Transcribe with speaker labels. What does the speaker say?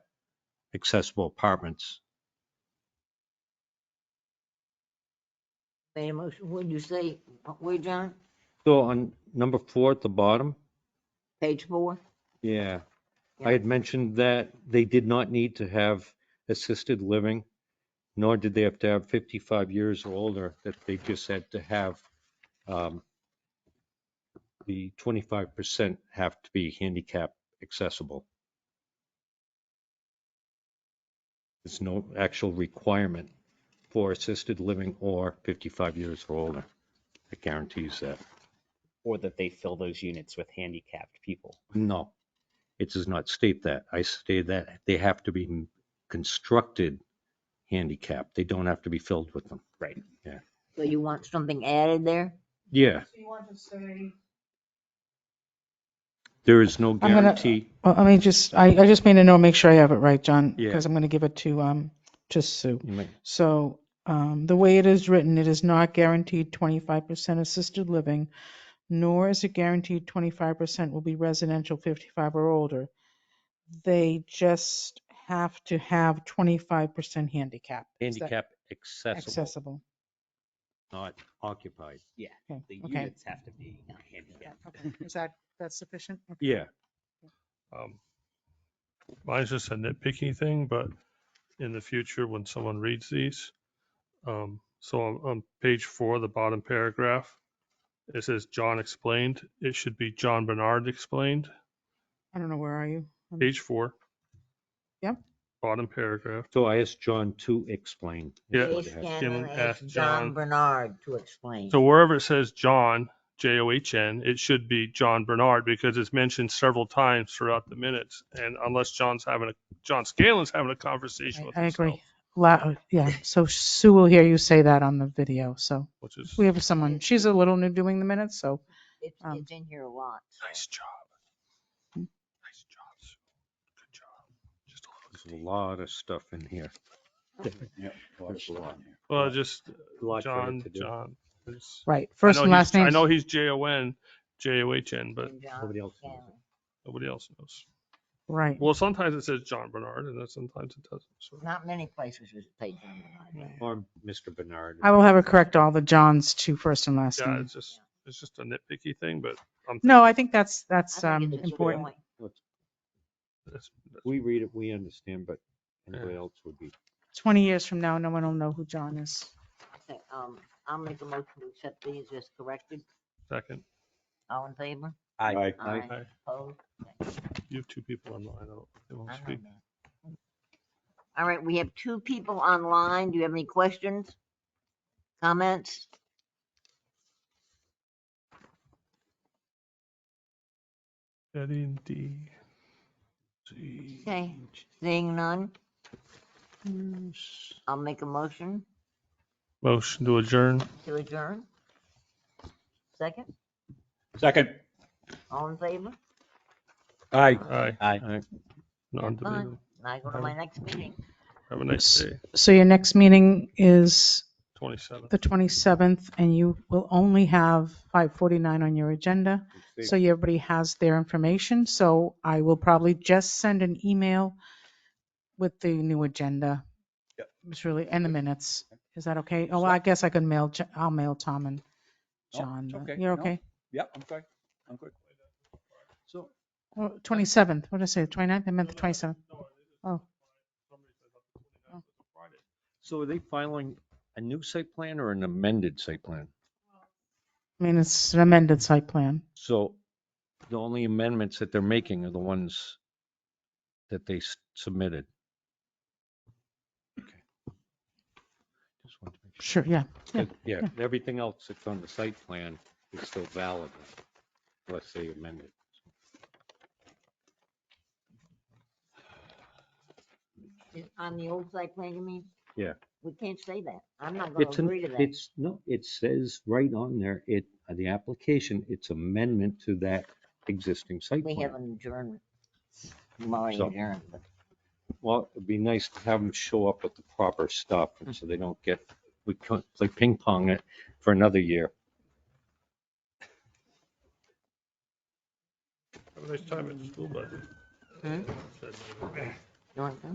Speaker 1: accessible apartments.
Speaker 2: Made a motion, what did you say, where, John?
Speaker 1: So on number four at the bottom,
Speaker 2: Page four?
Speaker 1: yeah,
Speaker 2: Yeah.
Speaker 1: I had mentioned that they did not need to have assisted living, nor did they have to have 55 years or older, that they just had to have um, the 25% have to be handicap accessible. There's no actual requirement for assisted living or 55 years or older. It guarantees that.
Speaker 3: or that they fill those units with handicapped people.
Speaker 1: No, it does not state that. I state that they have to be constructed handicapped. They don't have to be filled with them.
Speaker 2: So you want something added there?
Speaker 1: Yeah,
Speaker 4: So you want to say,
Speaker 1: there is no
Speaker 4: gonna-
Speaker 1: guarantee.
Speaker 4: well, let me just, I, I just made a note, make sure I have it right, John,
Speaker 1: Yeah.
Speaker 4: because I'm going to give it to, um, to Sue.
Speaker 1: You might-
Speaker 4: So, um, the way it is written, it is not guaranteed twenty-five percent assisted living, nor is it guaranteed twenty-five percent will be residential fifty-five or older. They just have to have twenty-five percent handicap. Is that
Speaker 1: Handicap accessible,
Speaker 4: Accessible.
Speaker 1: not occupied.
Speaker 3: Yeah,
Speaker 4: Okay,
Speaker 3: the
Speaker 4: okay.
Speaker 3: units have to be handicapped.
Speaker 4: Okay, Is that, that's sufficient? Okay.
Speaker 1: Yeah,
Speaker 5: Um, Mine's just a nitpicky thing, but in the future, when someone reads these, um, so on, on page four, the bottom paragraph, it says John explained. It should be John Bernard explained.
Speaker 4: I don't know, where are you? Um,
Speaker 5: Page four.
Speaker 4: Yep.
Speaker 5: Bottom paragraph.
Speaker 1: so I asked John to explain. is
Speaker 5: Yeah.
Speaker 1: what
Speaker 2: Jay
Speaker 1: it has.
Speaker 2: Scanlon
Speaker 5: Scanlon
Speaker 2: asked
Speaker 5: asked
Speaker 2: John
Speaker 5: John-
Speaker 2: Bernard to explain.
Speaker 5: So wherever it says John, J O H N, it should be John Bernard because it's mentioned several times throughout the minutes. And unless John's having a, John Scalen's having a conversation with
Speaker 4: I I
Speaker 5: himself,
Speaker 4: agree. Loud, yeah, so Sue will hear you say that on the video, so
Speaker 5: which is
Speaker 4: we have someone, she's a little new doing the minutes, so.
Speaker 2: It's,
Speaker 4: um,
Speaker 2: it's in here a lot. so.
Speaker 5: Nice job.
Speaker 4: Hmm.
Speaker 5: Nice job, Sue. Good job. Just a little
Speaker 1: There's a lot of stuff in here.
Speaker 5: Well, just
Speaker 1: A lot for it
Speaker 5: John,
Speaker 1: to do.
Speaker 5: John. It's-
Speaker 4: Right,
Speaker 5: I
Speaker 4: first
Speaker 5: know
Speaker 4: and
Speaker 5: he's-
Speaker 4: last names.
Speaker 5: I know he's J O N, J O H N, but
Speaker 2: And John
Speaker 1: nobody else knows
Speaker 2: Scanlon.
Speaker 5: nobody else knows.
Speaker 4: Right.
Speaker 5: Well, sometimes it says John Bernard and then sometimes it doesn't. So
Speaker 2: Not many places is paid John Bernard.
Speaker 1: Or Mr. Bernard.
Speaker 4: I will have her correct all the Johns to first and last
Speaker 5: yeah,
Speaker 4: name.
Speaker 5: it's just, it's just a nitpicky thing, but I'm.
Speaker 4: No, I think that's, that's
Speaker 2: I
Speaker 4: um,
Speaker 2: think it's a good
Speaker 4: important.
Speaker 2: point.
Speaker 5: that's- that's-
Speaker 1: We read it, we understand, but anybody else would be.
Speaker 4: 20 years from now, no one will know who John is.
Speaker 2: Okay, Um, I'll make a motion to accept these as corrected.
Speaker 5: Second,
Speaker 2: All in favor?
Speaker 3: I,
Speaker 1: Aye.
Speaker 5: Aye.
Speaker 2: Opposed?
Speaker 5: you have two people online. I don't, they won't
Speaker 2: I
Speaker 5: speak.
Speaker 2: know that. All right, we have two people online. Do you have any questions? Comments?
Speaker 5: Betty and D. Z.
Speaker 2: Okay, seeing none, I'll make a motion
Speaker 5: Motion to adjourn.
Speaker 2: to adjourn. Second,
Speaker 3: Second.
Speaker 2: all in favor?
Speaker 1: Aye.
Speaker 5: Aye.
Speaker 3: Aye.
Speaker 2: Fine.
Speaker 5: Non-debatable.
Speaker 2: Now I go to my next meeting.
Speaker 5: Have a nice
Speaker 4: S-
Speaker 5: day.
Speaker 4: So your next meeting is
Speaker 5: Twenty-seven.
Speaker 4: the 27th, and you will only have 5:49 on your agenda. So everybody has their information, so I will probably just send an email with the new agenda. It's really, and the minutes. Is that okay? Oh, I guess I can mail, Jo- I'll mail Tom and
Speaker 6: No,
Speaker 4: John.
Speaker 6: it's
Speaker 4: but
Speaker 6: okay.
Speaker 4: You're
Speaker 6: No.
Speaker 4: okay?
Speaker 6: Yep, I'm sorry. I'm good. So
Speaker 4: Well, 27th, Oh, what did I say, 29th? I meant the 27th. Oh.
Speaker 1: So are they filing a new site plan or an amended site plan?
Speaker 4: I mean, it's an amended site plan.
Speaker 1: So the only amendments that they're making are the ones that they s- submitted. Okay. Just wanted to make
Speaker 4: Sure, yeah.
Speaker 1: sure. Yeah, everything else that's on the site plan is still valid unless they amend it.
Speaker 2: On the old site plan, you mean?
Speaker 1: Yeah.
Speaker 2: We can't say that. I'm not gonna
Speaker 1: It's, an-
Speaker 2: agree to that.
Speaker 1: it's, no, it says right on there, it, the application, it's amendment to that existing site
Speaker 2: We have
Speaker 1: plan.
Speaker 2: an adjournment. I'm already
Speaker 1: So-
Speaker 2: adjourned, but
Speaker 1: Well, it'd be nice to have them show up with the proper stuff and so they don't get, we can't play ping pong it for another year.
Speaker 5: Have a nice time at the school, bud.
Speaker 2: Hmm? you want to?